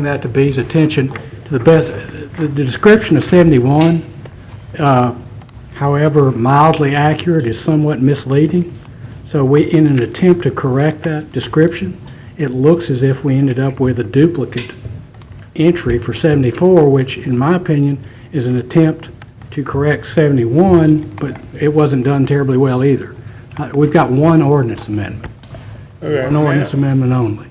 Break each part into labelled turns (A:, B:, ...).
A: bring that to B's attention, to the best, the the description of 71, uh, however mildly accurate, is somewhat misleading. So we, in an attempt to correct that description, it looks as if we ended up with a duplicate entry for 74, which, in my opinion, is an attempt to correct 71, but it wasn't done terribly well either. Uh, We've got one ordinance amendment,
B: Okay,
A: an ordinance amendment only.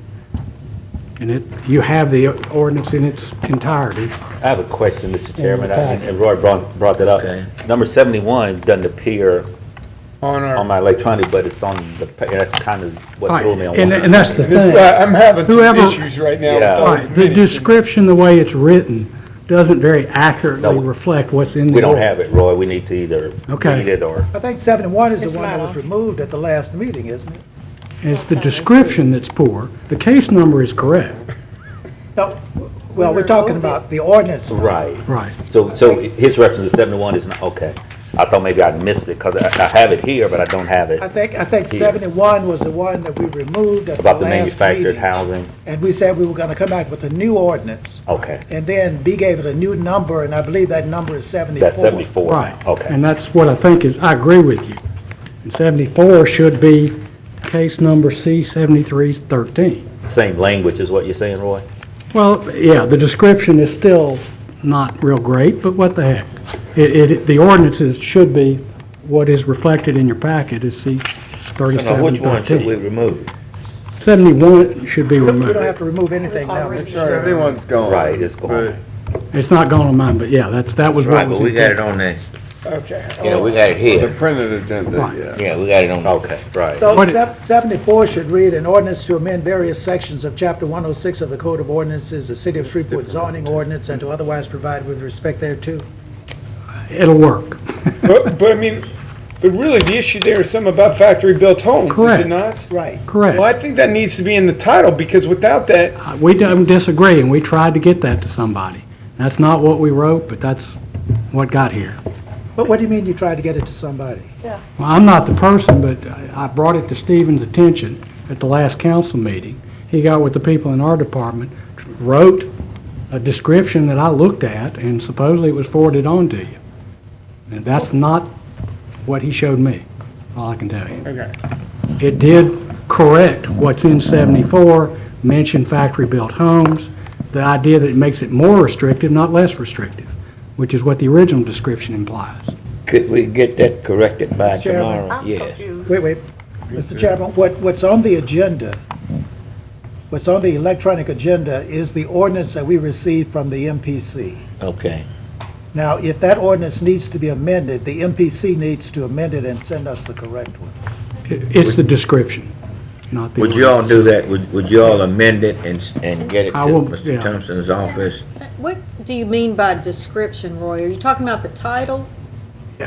A: And it, you have the ordinance in its entirety.
C: I have a question, Mr. Chairman,
A: the back.
C: and and Roy brought, brought that
D: Okay.
C: up. Number seventy-one doesn't appear
B: on
C: on
B: our,
C: my electronic, but it's on the, pa- and that's kind of what
A: Right,
C: threw me on.
A: And and that's the thing.
B: this, I- I'm having some
A: Whoever-
B: issues right now with
C: Yeah.
B: all these
A: Right, the
B: meetings.
A: description, the way it's written, doesn't very accurately
C: No.
A: reflect what's in the
C: We don't
A: ordinance.
C: have it, Roy, we need to either
A: Okay.
C: read it or,
E: I think 71 is the
F: It's
E: one that
F: not
E: was
F: on.
E: removed at the last meeting, isn't it?
A: It's the description that's poor. The case number is correct.
E: No, well, we're talking about the ordinance.
C: right.
A: Right.
C: So, so his reference to seventy-one is not, okay. I thought maybe I missed it, because I, I have it here, but I don't have it.
E: I think, I think 71 was the one that we removed at the
C: About the
E: last
C: manufactured
E: meeting.
C: housing,
E: And we said we were going to come back with a new ordinance.
C: okay.
E: And then B gave it a new number, and I believe that number is 74.
C: That's seventy-four.
A: Right.
C: Okay,
A: And that's what I think is, I agree with you. And 74 should be case number C-7313.
C: same language is what you're saying, Roy?
A: Well, yeah, the description is still not real great, but what the heck? It, it, the ordinances should be, what is reflected in your packet is
D: Now, which one should we
A: C-3713.
D: remove?
A: 71 should be
E: We don't have
A: removed.
E: to remove anything now.
F: Already.
E: Mr. Chairman.
B: Everyone's gone.
C: Right, it's gone.
A: It's not going on mine, but yeah, that's, that was
D: Right,
A: what
D: but
A: was.
D: we got it
A: intended.
D: on the,
B: But- Okay.
D: you know, we got it
B: The
D: here.
B: printed agenda,
A: Right.
B: yeah.
D: Yeah, we got it on.
C: Okay, right.
E: So
A: What it-
E: sep- 74 should read, "An ordinance to amend various sections of Chapter 106 of the Code of Ordinances, the City of Shreveport zoning ordinance, and to otherwise provide with respect thereto."
A: It'll work.
B: But, but I mean, but really, the issue there is something about factory-built homes, is
A: Correct.
B: it not?
E: Right.
A: Correct.
B: Well, I think that needs to be in the title, because without that,
A: Uh, We don't disagree, and we tried to get that to somebody. That's not what we wrote, but that's what got here.
E: But what do you mean you tried to get it to somebody?
A: Well, I'm not the person, but I I brought it to Stephen's attention at the last council meeting. He got with the people in our department, wrote a description that I looked at, and supposedly it was forwarded on to you. And that's not what he showed me, all I can tell you.
B: okay,
A: It did correct what's in 74, mention factory-built homes, the idea that it makes it more restrictive, not less restrictive, which is what the original description implies.
D: Could we get that corrected by
E: Mr. Chairman?
D: tomorrow?
F: I'm
D: Yes.
F: confused.
E: Wait, wait, Mr. Chairman, what, what's on the agenda, what's on the electronic agenda is the ordinance that we received from the MPC.
D: Okay,
E: Now, if that ordinance needs to be amended, the MPC needs to amend it and send us the correct one.
A: It- It's the description, not the...
D: would you all do that, would, would you all amend it and, s- and get it to
A: I will, yeah.
D: Mr. Thompson's office?
G: What do you mean by description, Roy? Are you talking about the title?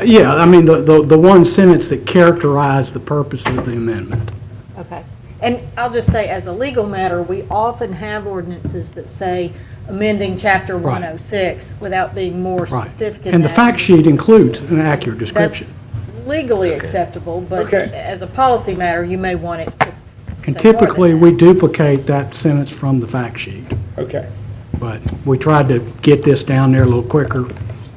A: Yeah, I mean, the- the the one sentence that characterized the purpose of the amendment.
G: Okay. And I'll just say, as a legal matter, we often have ordinances that say amending Chapter 106 without being more
A: Right.
G: specific in that.
A: And the fact sheet includes an accurate description.
G: That's legally acceptable, but
B: Okay.
G: as a policy matter, you may want it to
A: And
G: say more than
A: typically,
G: that.
A: we duplicate that sentence from the fact sheet,
B: okay.
A: but we tried to get this down there a little quicker.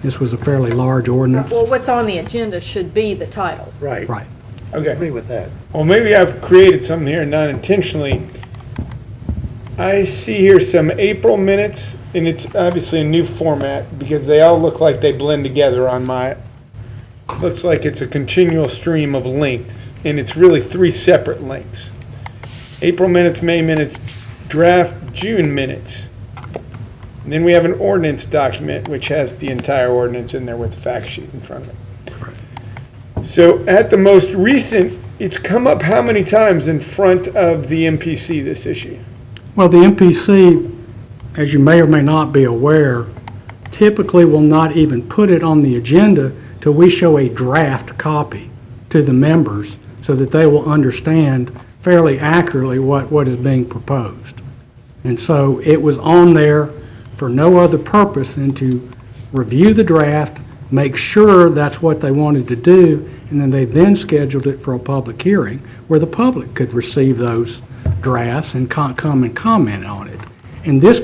A: This was a fairly large ordinance.
G: Well, what's on the agenda should be the title.
E: Right.
A: Right.
B: Okay.
E: Agree with that.
B: Well, maybe I've created something here not intentionally. I see here some April minutes, and it's obviously a new format because they all look like they blend together on my. Looks like it's a continual stream of links, and it's really three separate links. April minutes, May minutes, draft June minutes. And then we have an ordinance document which has the entire ordinance in there with the fact sheet in front of it. So at the most recent, it's come up how many times in front of the MPC, this issue?
A: Well, the MPC, as you may or may not be aware, typically will not even put it on the agenda till we show a draft copy to the members so that they will understand fairly accurately what, what is being proposed. And so it was on there for no other purpose than to review the draft, make sure that's what they wanted to do, and then they then scheduled it for a public hearing where the public could receive those drafts and con- come and comment on it. And this